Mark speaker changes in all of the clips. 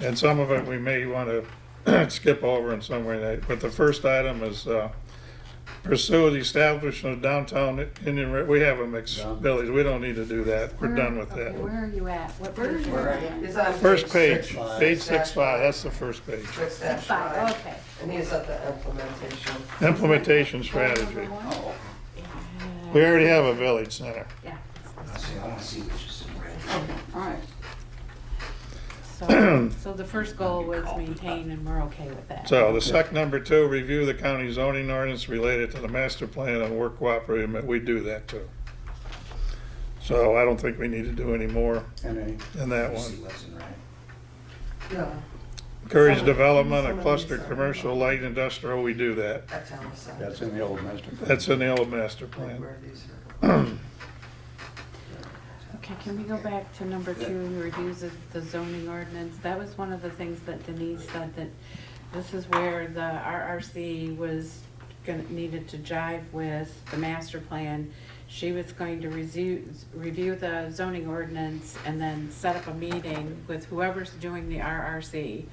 Speaker 1: And some of it we may want to skip over in some way, but the first item is uh, pursue the establishment of downtown Indian, Re- we have a mixed
Speaker 2: Done.
Speaker 1: village, we don't need to do that, we're done with
Speaker 3: Okay,
Speaker 1: that.
Speaker 3: Where are you at? What page
Speaker 4: Where
Speaker 3: are
Speaker 4: are
Speaker 3: you
Speaker 4: you?
Speaker 3: at?
Speaker 4: It's on
Speaker 1: First
Speaker 2: Six
Speaker 1: page,
Speaker 2: five.
Speaker 1: page six five, that's the first page.
Speaker 4: Six
Speaker 3: Six
Speaker 4: dash
Speaker 3: five,
Speaker 4: five.
Speaker 3: okay.
Speaker 4: And he's at the implementation.
Speaker 1: Implementation strategy,
Speaker 3: Number one?
Speaker 2: Oh,
Speaker 1: we already have a village center.
Speaker 3: Yeah,
Speaker 2: let's see, I wanna see which is in red.
Speaker 3: okay, all right. So, so the first goal was maintain and we're okay with that.
Speaker 1: So the sec number two, review the county zoning ordinance related to the master plan and work cooperative, we do that too. So I don't think we need to do any more
Speaker 2: Henry,
Speaker 1: in that one.
Speaker 2: let's see what's in red.
Speaker 4: Yeah,
Speaker 1: Encourage
Speaker 4: Some-
Speaker 1: development
Speaker 4: some
Speaker 1: of
Speaker 4: of
Speaker 1: cluster
Speaker 4: these are-
Speaker 1: commercial, light industrial, we do that.
Speaker 4: that's how it's.
Speaker 2: That's in the old master. plan.
Speaker 1: That's in the old master plan.
Speaker 4: Where these are.
Speaker 3: Okay, can we go back to number two, the reviews of the zoning ordinance? That was one of the things that Denise said, that this is where the RRC was gonna, needed to jive with the master plan. She was going to review, review the zoning ordinance and then set up a meeting with whoever's doing the RRC.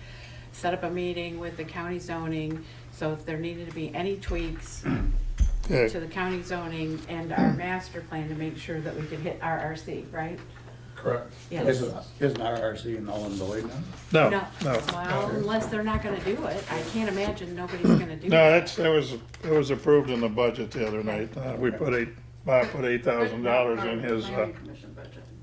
Speaker 3: Set up a meeting with the county zoning, so if there needed to be any tweaks, to
Speaker 1: Okay,
Speaker 3: the county zoning and our master plan to make sure that we could hit RRC, right?
Speaker 2: Correct.
Speaker 3: Yes.
Speaker 2: Isn't, isn't RRC in all in the way now?
Speaker 1: No, no.
Speaker 3: No, well, unless they're not gonna do it, I can't imagine nobody's gonna do
Speaker 1: No,
Speaker 3: that.
Speaker 1: that's, that was, it was approved in the budget the other night. Uh, We put eight, Bob put eight thousand dollars in his, uh,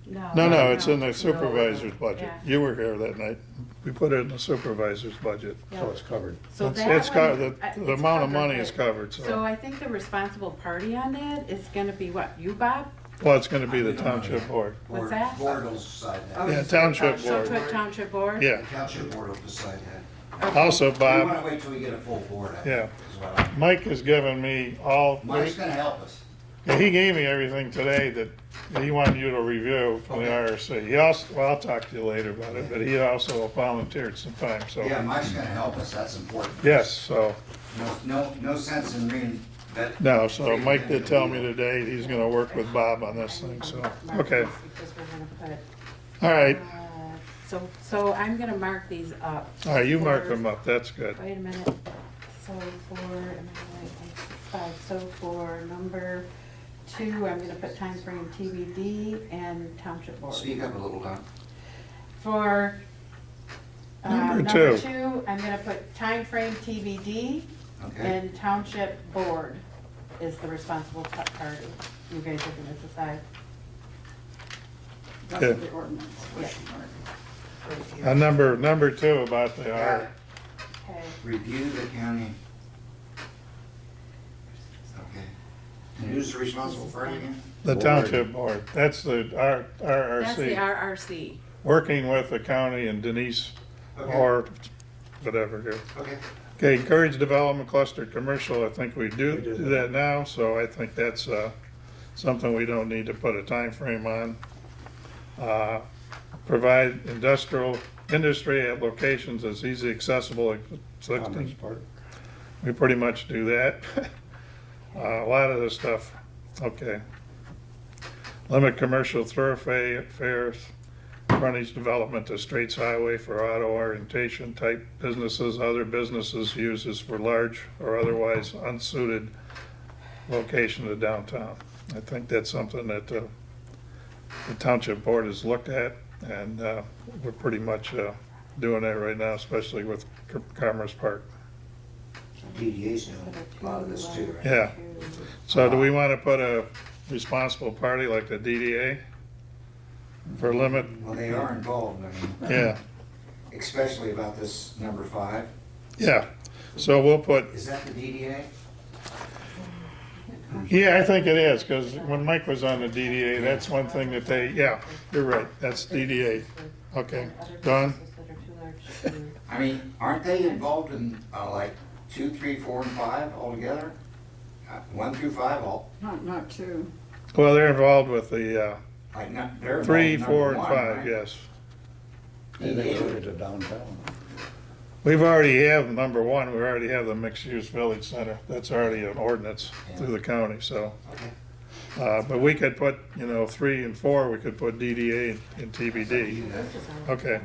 Speaker 1: no, no, it's in the supervisor's budget.
Speaker 3: Yeah.
Speaker 1: You were here that night. We put it in the supervisor's budget.
Speaker 2: So it's covered.
Speaker 3: So
Speaker 1: It's-
Speaker 3: that
Speaker 1: it's co-
Speaker 3: one,
Speaker 1: the-
Speaker 3: uh,
Speaker 1: the
Speaker 3: it's
Speaker 1: amount of money
Speaker 3: but-
Speaker 1: is covered, so-
Speaker 3: So I think the responsible party on that is gonna be what, you, Bob?
Speaker 1: Well, it's gonna be the township board.
Speaker 3: What's
Speaker 2: Board-
Speaker 3: that?
Speaker 2: Board will decide
Speaker 4: Oh,
Speaker 2: that.
Speaker 1: Yeah,
Speaker 4: it's-
Speaker 1: township
Speaker 3: So
Speaker 1: board.
Speaker 3: put township board?
Speaker 1: Yeah.
Speaker 2: The township board will decide that.
Speaker 3: Okay.
Speaker 1: Also,
Speaker 2: We
Speaker 1: Bob,
Speaker 2: wanna wait till we get a full board. I think,
Speaker 1: Yeah.
Speaker 2: is what I-
Speaker 1: Mike has given me all,
Speaker 2: Mike's gonna help us.
Speaker 1: he gave me everything today that he wanted you to review from the IRC. He also, well, I'll talk to you later about it, but he also volunteered some time,
Speaker 2: Yeah,
Speaker 1: so.
Speaker 2: Mike's gonna help us, that's important.
Speaker 1: Yes, so,
Speaker 2: No, no, no sense in reading that.
Speaker 1: no, so Mike did tell me today he's gonna work with Bob on this thing, so,
Speaker 3: Mark
Speaker 1: okay.
Speaker 3: this Because we're gonna put it,
Speaker 1: All right,
Speaker 3: uh, so, so I'm gonna mark these up.
Speaker 1: all right, you mark
Speaker 3: for-
Speaker 1: them up, that's good.
Speaker 3: Wait a minute, so for, am I right, One, six, five, so for number two, I'm gonna put time frame TBD and township board.
Speaker 2: Speak up a little, Don.
Speaker 3: For, uh,
Speaker 1: Number
Speaker 3: number
Speaker 1: two.
Speaker 3: two, I'm gonna put time frame TBD
Speaker 2: Okay.
Speaker 3: and township board is the responsible pa- party. You guys are gonna decide.
Speaker 1: Okay.
Speaker 3: Yeah,
Speaker 1: Uh, number, number two about the
Speaker 2: Got
Speaker 1: R,
Speaker 2: it.
Speaker 3: okay.
Speaker 2: Review the county. Okay. And who's the responsible party again?
Speaker 1: the township board, that's the R,
Speaker 3: That's the
Speaker 1: RRC.
Speaker 3: RRC.
Speaker 1: Working with the county and Denise
Speaker 2: Okay.
Speaker 1: or whatever here.
Speaker 2: Okay.
Speaker 1: Okay, encourage development cluster commercial, I think we do
Speaker 2: We do
Speaker 1: do
Speaker 2: that.
Speaker 1: that now, so I think that's, uh, something we don't need to put a time frame on. Uh, Provide industrial, industry at locations that's easy accessible,
Speaker 2: Commerce
Speaker 1: we
Speaker 2: part.
Speaker 1: pretty much do that. Uh, A lot of this stuff, okay. Limit commercial thoroughfares, frontage development to Straits Highway for auto orientation type businesses, other businesses uses for large or otherwise unsuited location to downtown. I think that's something that uh, the township board has looked at, and uh, we're pretty much uh, doing that right now, especially with Co- Commerce Park.
Speaker 2: PDA's doing a lot of this too, right?
Speaker 1: Yeah.
Speaker 3: Two.
Speaker 1: So do we want to put a responsible party like the DDA for limit?
Speaker 2: Well, they are involved, I mean.
Speaker 1: Yeah,
Speaker 2: Especially about this number five.
Speaker 1: yeah. So we'll put
Speaker 2: Is that the DDA?
Speaker 1: Yeah, I think it is, because when Mike was on the DDA, that's one thing that they, yeah, you're right, that's DDA. Okay, Don?
Speaker 2: I mean, aren't they involved in uh, like two, three, four, and five altogether? Uh, One through five all,
Speaker 5: Not, not two.
Speaker 1: Well, they're involved with the uh,
Speaker 2: like not, they're involved
Speaker 1: three,
Speaker 2: in number
Speaker 1: four, and
Speaker 2: one,
Speaker 1: five,
Speaker 2: right?
Speaker 1: yes.
Speaker 2: And they voted
Speaker 6: to downtown.
Speaker 1: We've already have number one, we already have the mixed-use village center, that's already an ordinance through the county, so.
Speaker 2: Okay.
Speaker 1: Uh, But we could put, you know, three and four, we could put DDA and TBD. Okay,